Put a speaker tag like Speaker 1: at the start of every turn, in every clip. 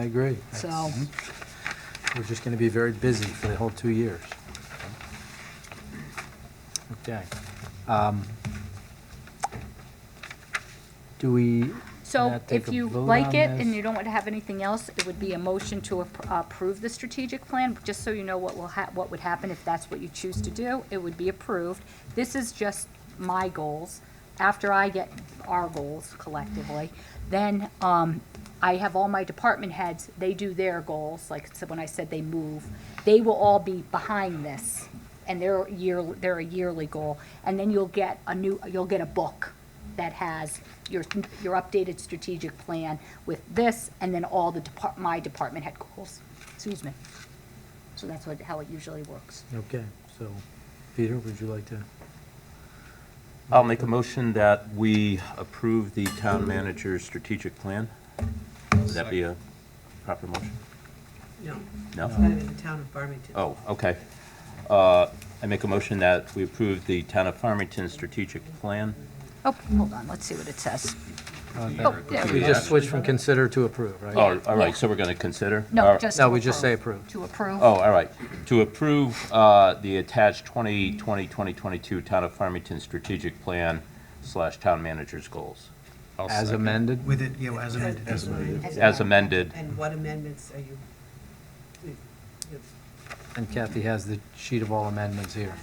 Speaker 1: I agree. hmm.
Speaker 2: So,
Speaker 1: We're just going to be very busy for the whole two years. Okay. Um, Do we, Can I
Speaker 2: so
Speaker 1: take
Speaker 2: if
Speaker 1: a
Speaker 2: you
Speaker 1: vote
Speaker 2: like
Speaker 1: on
Speaker 2: it and
Speaker 1: this?
Speaker 2: you don't want to have anything else, it would be a motion to appro- approve the strategic plan, just so you know what will hap, what would happen if that's what you choose to do. It would be approved. This is just my goals. After I get our goals collectively, then, um, I have all my department heads, they do their goals, like, so when I said they move, they will all be behind this. And they're year, they're a yearly goal. And then you'll get a new, you'll get a book that has your, your updated strategic plan with this and then all the depart, my department head goals. Excuse me. So that's what, how it usually works.
Speaker 1: okay, so, Peter, would you like to?
Speaker 3: I'll make a motion that we approve the town manager's strategic plan. Would that be a proper motion?
Speaker 4: No, it's
Speaker 3: No?
Speaker 4: gotta be the town of Farmington.
Speaker 3: Oh, okay. Uh, I make a motion that we approve the town of Farmington strategic plan.
Speaker 2: Oh, hold on, let's see what it says. Oh, there
Speaker 1: We
Speaker 2: we go.
Speaker 1: just switched from consider to approve, right?
Speaker 3: Oh, all right, so we're going to consider? All
Speaker 2: No,
Speaker 3: right.
Speaker 2: just to
Speaker 1: No, we just say
Speaker 2: approve.
Speaker 1: approve.
Speaker 2: To approve.
Speaker 3: Oh, all right. To approve uh, the attached 2020-2022 town of Farmington strategic plan slash town manager's goals.
Speaker 1: As amended?
Speaker 5: With it, yeah, as amended. As amended.
Speaker 3: As amended.
Speaker 4: And what amendments are you? you- you-
Speaker 1: And Kathy has the sheet of all amendments here.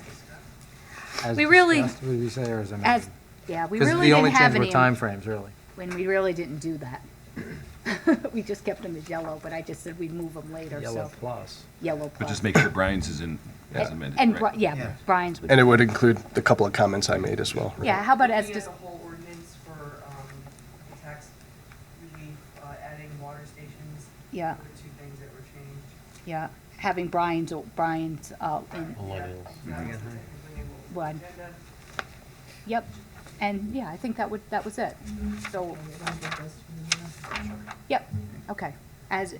Speaker 1: As
Speaker 2: We really-
Speaker 1: discussed, Would we say or as
Speaker 2: As,
Speaker 1: amended?
Speaker 2: yeah, we
Speaker 1: Because
Speaker 2: really
Speaker 1: the only
Speaker 2: didn't have
Speaker 1: change were
Speaker 2: any,
Speaker 1: timeframes, really.
Speaker 2: when we really didn't do that. We just kept them as yellow, but I just said we'd move them later, so,
Speaker 1: plus.
Speaker 2: yellow
Speaker 6: But
Speaker 2: plus.
Speaker 6: just make sure Brian's is in, as amended,
Speaker 2: And,
Speaker 6: right?
Speaker 2: Bri- yeah,
Speaker 5: Yeah.
Speaker 2: Brian's would,
Speaker 7: And it would include the couple of comments I made as well. right?
Speaker 2: yeah, how about as,
Speaker 8: Looking at
Speaker 2: dis-
Speaker 8: the whole ordinance for um, tax relief, uh, adding water stations.
Speaker 2: Yeah.
Speaker 8: were the two things that were changed.
Speaker 2: yeah, having Brian's, Brian's, uh, in,
Speaker 8: That was technically what was
Speaker 2: One.
Speaker 8: agenda.
Speaker 2: Yep, and yeah, I think that would, that was it. So, yep, okay, as,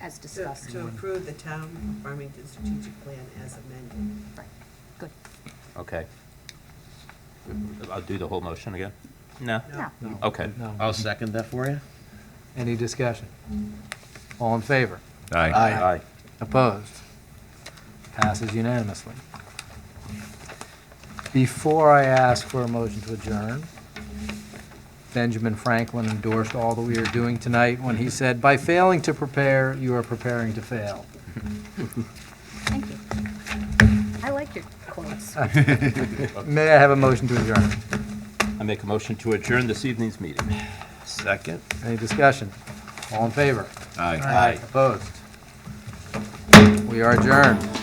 Speaker 2: as
Speaker 4: To
Speaker 2: discussed.
Speaker 4: to approve the town of Farmington strategic plan as amended.
Speaker 2: Right, Good,
Speaker 3: Okay. I'll do the whole motion again? No?
Speaker 2: yeah,
Speaker 3: Okay.
Speaker 1: No.
Speaker 9: second that for you.
Speaker 1: Any discussion? All in favor?
Speaker 6: Aye.
Speaker 3: Aye.
Speaker 1: Opposed? Passes unanimously. Before I ask for a motion to adjourn, Benjamin Franklin endorsed all that we are doing tonight when he said, "By failing to prepare, you are preparing to fail."
Speaker 2: thank you. I like your quotes.
Speaker 1: May I have a motion to adjourn?
Speaker 3: I make a motion to adjourn this evening's meeting.
Speaker 9: Second.
Speaker 1: Any discussion? All in favor?
Speaker 6: Aye.
Speaker 1: Opposed? We are adjourned.